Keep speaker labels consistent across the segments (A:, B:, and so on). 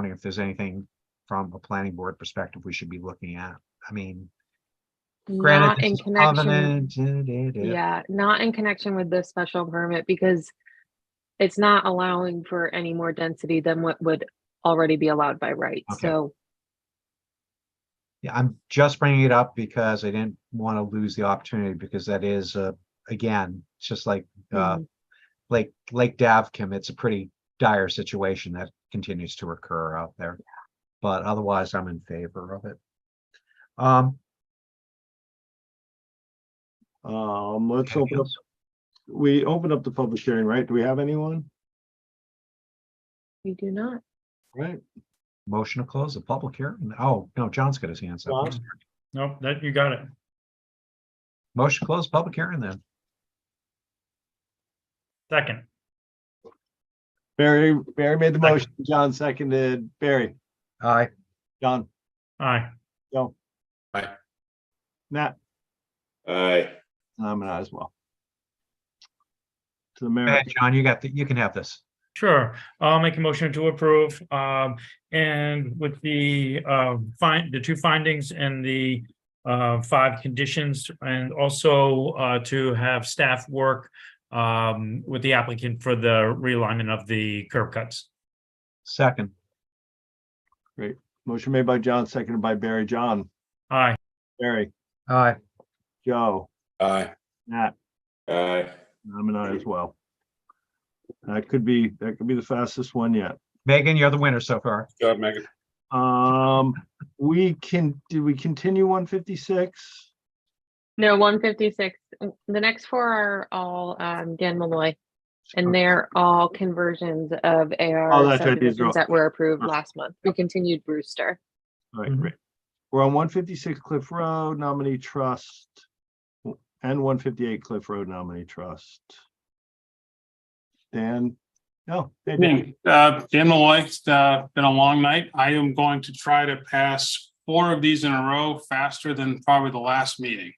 A: wondering if there's anything from a planning board perspective we should be looking at. I mean, granted,
B: Not in
A: this is
B: connection,
A: covenant. da, da, da.
B: yeah, not in connection with this special permit because it's not allowing for any more density than what would already be allowed by right.
A: Okay.
B: So,
A: Yeah, I'm just bringing it up because I didn't want to lose the opportunity because that is, uh, again, it's just like, uh,
B: mhm,
A: Lake, Lake Davkim, it's a pretty dire situation that continues to occur out there. But otherwise, I'm in favor of it. Um,
C: Um, let's
A: anything
C: open up,
A: else?
C: we open up the public hearing, right? Do we have anyone?
B: we do not.
C: Right?
A: motion to close the public hearing. Oh, no, John's got his hands up.
C: John?
D: Nope, that, you got it.
A: Motion to close public hearing then.
D: Second,
C: Barry, Barry made the
D: Second.
C: motion, John seconded, Barry,
A: Aye.
C: John,
D: aye.
C: Joe.
E: Aye.
C: Nat,
E: Aye.
C: I'm an aye as well. To the
A: Hey,
C: mayor,
A: John, you got the, you can have this.
D: Sure, I'll make a motion to approve, um, and with the, uh, find, the two findings and the. Uh, five conditions and also, uh, to have staff work, um, with the applicant for the realignment of the curb cuts.
A: Second,
C: motion made by John, seconded by Barry, John,
D: Aye,
C: Barry,
A: aye.
C: Joe,
E: Aye.
C: Nat,
E: Aye.
C: I'm an aye as well. That could be, that could be the fastest one yet.
A: Megan, you're the winner so far.
E: Job, Megan.
C: Um, we can, do we continue one fifty-six?
B: No, one fifty-six. The next four are all, um, Dan Malloy. And they're all conversions of
C: Oh,
B: AR
C: that's right, these are all-
B: subdivisions that were approved
C: Sure.
B: last month. We continued Brewster.
C: All right,
A: Mhm.
C: great. We're on one fifty-six Cliff Road Nominee Trust and one fifty-eight Cliff Road Nominee Trust. Dan, no, hey,
F: Yeah,
C: Dan,
F: uh, Dan Malloy, it's uh, been a long night. I am going to try to pass four of these in a row faster than probably the last meeting.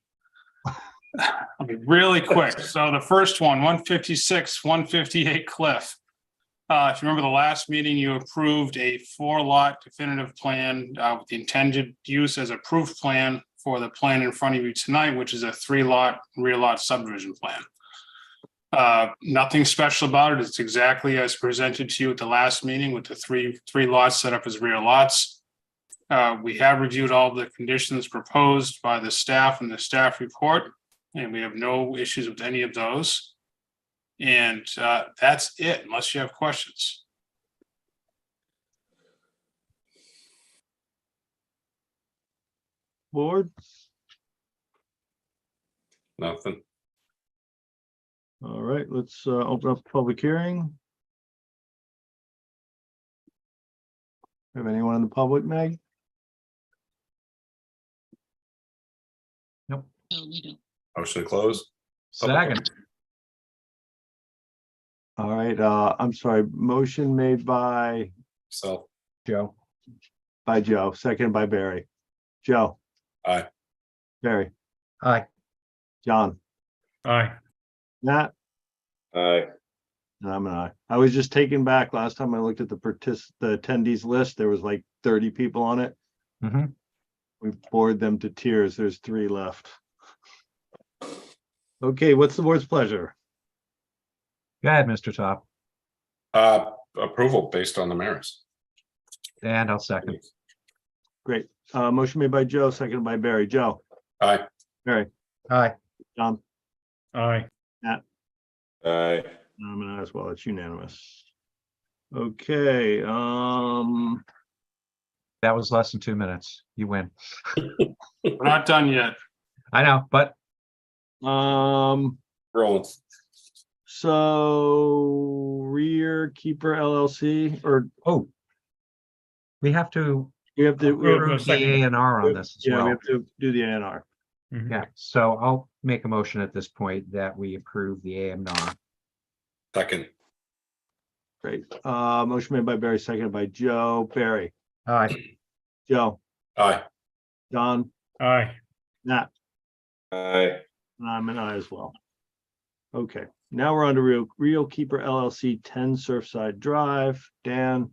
F: I'll be really quick. So the first one, one fifty-six, one fifty-eight Cliff. Uh, if you remember the last meeting, you approved a four-lot definitive plan, uh, with the intended use as a proof plan for the plan in front of you tonight, which is a three-lot, rear-lot subdivision plan. Uh, nothing special about it. It's exactly as presented to you at the last meeting with the three, three lots set up as rear lots. Uh, we have reviewed all the conditions proposed by the staff in the staff report, and we have no issues with any of those. And, uh, that's it, unless you have questions.
C: board,
E: Nothing.
C: all right, let's uh open up the public hearing. Have anyone in the public, Meg?
E: Motion to close.
A: Second,
C: All right, uh, I'm sorry, motion made by,
E: So,
A: Joe.
C: by Joe, seconded by Barry. Joe.
E: Aye.
C: Barry,
A: Aye.
C: John,
D: aye.
C: Nat.
E: aye.
C: And I'm an I. I was just taken back last time I looked at the partic- the attendees list, there was like thirty people on it.
A: Mhm.
C: We bored them to tears. There's three left. Okay, what's the board's pleasure?
A: Go ahead, Mr. Top,
E: Uh, approval based on the merits.
A: and I'll second.
C: Great. Uh, motion made by Joe, seconded by Barry. Joe,
E: Aye.
A: Aye.
C: John,
D: Aye.
E: Aye.
C: I'm an I as well. It's unanimous. Okay, um,
A: That was less than two minutes. You win.
F: We're not done yet.
A: I know, but
C: um,
E: Roll.
C: so rear keeper LLC, or
A: oh. We have to
C: we have to, we have-
D: Road
A: approve the
D: second.
A: A and R on this as
C: yeah, we
A: well.
C: have to do the A and R.
D: Mhm.
A: Yeah, so I'll make a motion at this point that we approve the A and R.
E: Second.
C: Great. Uh, motion made by Barry, seconded by Joe. Barry,
A: Aye.
C: Joe,
E: Aye.
C: Don,
D: Aye,
C: Nat,
E: Aye.
C: and I'm an I as well. Okay, now we're on to Real, Real Keeper LLC, ten Surfside Drive. Dan,